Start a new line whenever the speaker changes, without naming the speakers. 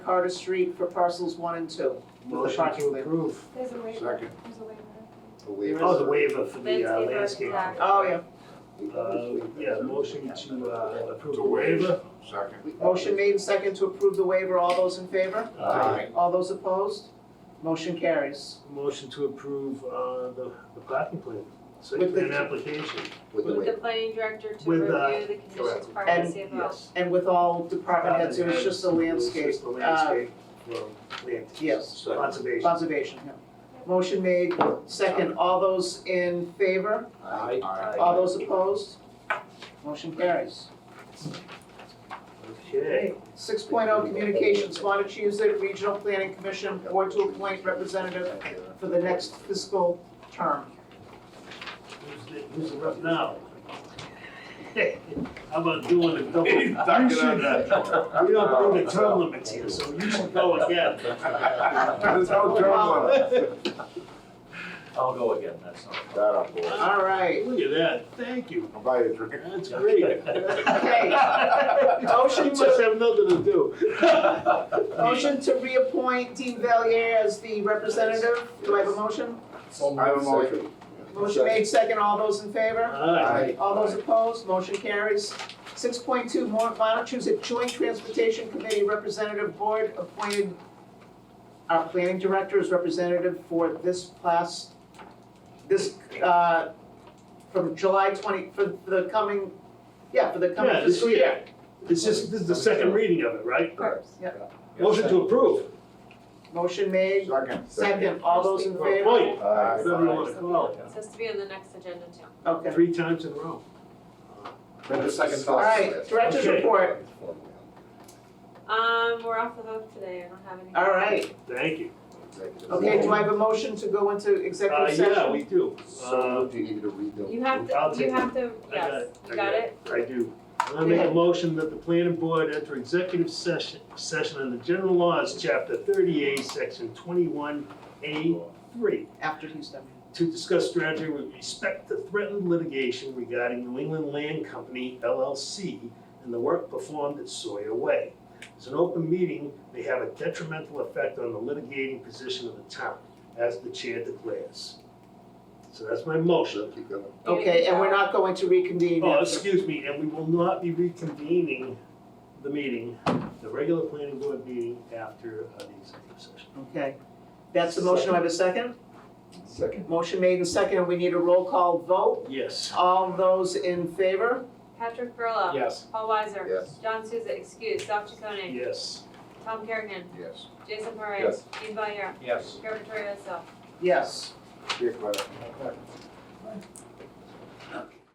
Carter Street for parcels one and two. With the
Motion
parking
to
waiver.
approve.
There's a waiver,
Second.
there's a waiver.
Oh,
Oh, the waiver for the uh,
Landscape
landscape.
architect.
Oh, yeah. Oh,
Uh, yeah, motion to uh, approve
To
the waiver.
waive. Second.
Motion made and second to approve the waiver. All those in favor?
Uh,
All those opposed? Motion carries.
Motion to approve, uh, the, the parking plan, site
With the-
plan application.
With the planning director to
With, uh,
review the conditions prior to
And-
CFO.
Yes.
And with all department heads, it was just a
It was
landscape.
just the
uh,
landscape for land,
Yes,
conservation.
conservation, yeah. Motion made, second. All those in favor?
Aye.
All those opposed? Motion carries.
Okay,
Six oh, communications, Montechusett Regional Planning Commission, board to appoint representative for the next fiscal term.
who's the, who's the rep now? How about doing a double?
He's ducking
You should,
under.
uh, We don't do the term limits here, so you should go again.
There's no term limit.
I'll go again, that's not.
That up, boy.
All right,
Look at that, thank you,
I'll buy you a drink.
that's great.
Okay.
Motion must have nothing to do.
motion to reappoint Dean Valier as the representative. Do I have a motion?
I have a motion.
Motion made second, all those in favor?
Aye.
All those opposed, motion carries. Six point two, Montechusett Joint Transportation Committee Representative Board appointed our planning director as representative for this class, this, uh, from July twenty, for for the coming, yeah, for the coming
Yeah, this
fiscal
year.
year.
It's just, this is the second reading of it, right? Motion
Motion
to approve.
Motion made,
Second.
second, all those in favor?
Wait,
Aye.
whatever you wanna call
It Says to be on the next agenda too.
it,
Okay.
three times in a row.
Then the second.
All right, director's
Okay.
report,
Um, we're off the hook today, I don't have any.
all right.
Thank you.
Okay, do I have a motion to go into
Uh,
executive session?
yeah, we do. Uh,
So, do you need me to read the?
You have
I'll
to,
take
you have to,
I got
yes,
it.
you got it?
I do. I make a motion that the planning board enter executive session, session under general laws, chapter thirty-eight, section twenty-one A three.
After he's done.
to discuss strategy with respect to threatened litigation regarding New England Land Company LLC and the work performed at Sawyer Way. As an open meeting may have a detrimental effect on the litigating position of the town, as the chair declares. So that's my motion.
Keep going.
You
Okay,
can
and we're
tell.
not going to reconvene
Oh,
after.
excuse me, and we will not be reconvening the meeting, the regular planning board meeting after uh, the executive session.
Okay, that's the motion, do I have a second?
Second.
Motion made and second, and we need a roll call vote.
Yes.
All those in favor?
Patrick Perla.
Yes.
Paul Weiser.
Yes.
John Souza, excuse, Sal Chaconi.
Yes.
Tom Kerrigan.
Yes.
Jason Parra.
Yes.
Dean Valier.
Yes.
Carver Torioso.
Yes.
Dick, right.